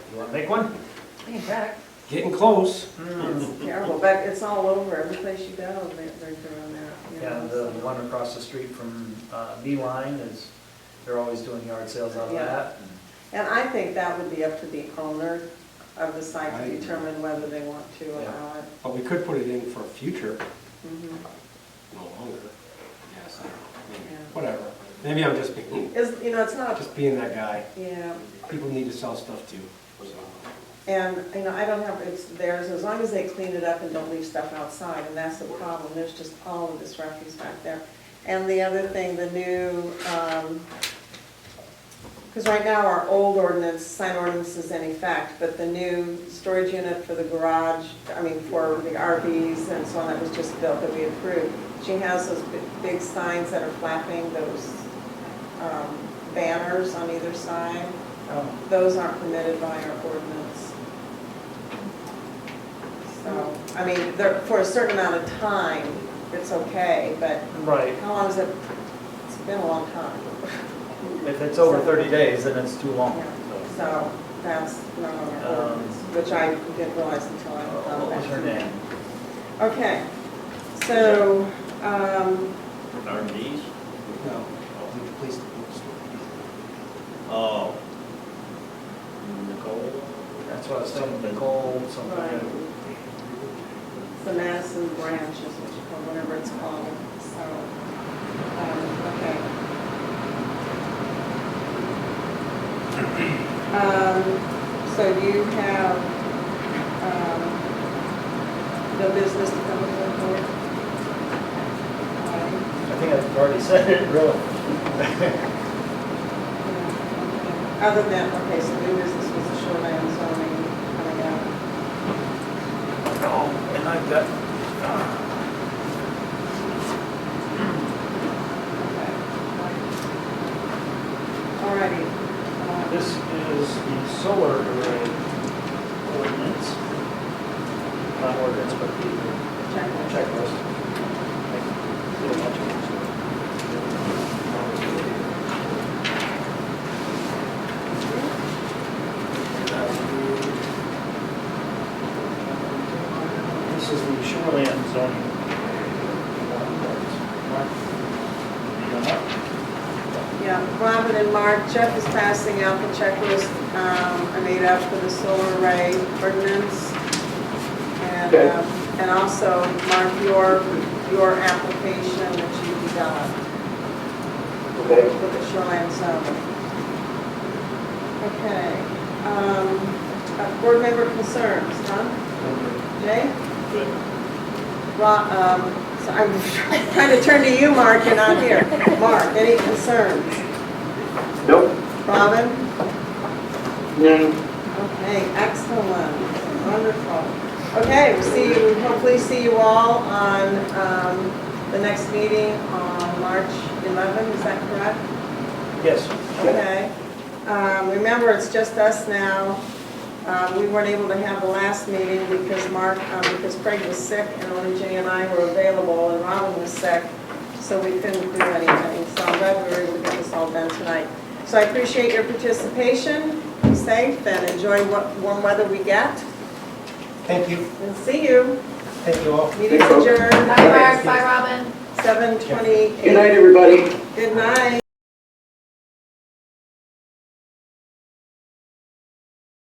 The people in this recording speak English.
You wanna make one? Hey, Beck, Getting close. Hmm. it's terrible, Beck, it's all over, every place you go, they- they're doing that, you Yeah, know. the so. one across the street from uh, Beeline is, they're always doing yard sales out of Yeah. that. And I think that would be up to the owner of the site I to agree. determine whether they want to Yeah. allow it. But we could put it in for future, Mhm. no longer. Yes, I don't know, maybe, Yeah. whatever. Maybe I'm just being, Is, you know, it's not, just being that guy. yeah, People need to sell stuff too, so. and, you know, I don't have, it's theirs, as long as they clean it up and don't leave stuff outside, and that's the problem, there's just all of this refuse back there. And the other thing, the new, um, Because right now, our old ordinance, sign ordinance is in effect, but the new storage unit for the garage, I mean, for the RVs and so on, that was just built that we approved, she has those bi- big signs that are flapping, those um, banners on either side. Um, Those aren't permitted by our ordinance. So, I mean, they're, for a certain amount of time, it's okay, but Right, how long is it? It's been a long time. if it's over 30 days, then it's too long. so. So that's not on our ordinance, which I didn't realize until I Uh, found that. Um, What was her name? Okay, so, um, RVs? No, leave the police to the Oh. Nicole? That's what I was telling Nicole, right, something. the Madison branch is what you call, whatever it's called, so, um, okay. Um, so you have, um, no business to come before the board? Aye. I think I've already said it, really. Other than, okay, so new business was the shoreline zoning coming out. Oh, and I've got, uh, Okay. All righty. uh, this is the solar array ordinance. Not ordinance, but the checklist. checklist. Like, little bunch of them. This is the shoreland zoning. Mark? Yeah, Robin and Mark, Jeff is passing out the checklist um, I made up for the solar array ordinance. And, Okay. um, and also, Mark, your, your application that you developed. Okay. for the shoreline zone. Okay, um, uh, board member concerns, Tom, Jay? Good. Rob, um, so I'm trying to turn to you, Mark, you're not here. Mark, any concerns? Nope. Robin? None. Okay, excellent, wonderful. Okay, we'll see you, hopefully see you all on, um, the next meeting on March 11, is that correct? Yes. Okay. Um, Remember, it's just us now. Um, We weren't able to have the last meeting because Mark, um, because Craig was sick and only Jay and I were available and Robin was sick, so we couldn't do anything. So I'm glad we were able to get this all done tonight. So I appreciate your participation. Be safe and enjoy what warm weather we get. Thank you. And see you. Thank you all. Meeting's adjourned. Bye, Mark. Bye, Robin. Seven twenty-eight. Good night, everybody. Good night.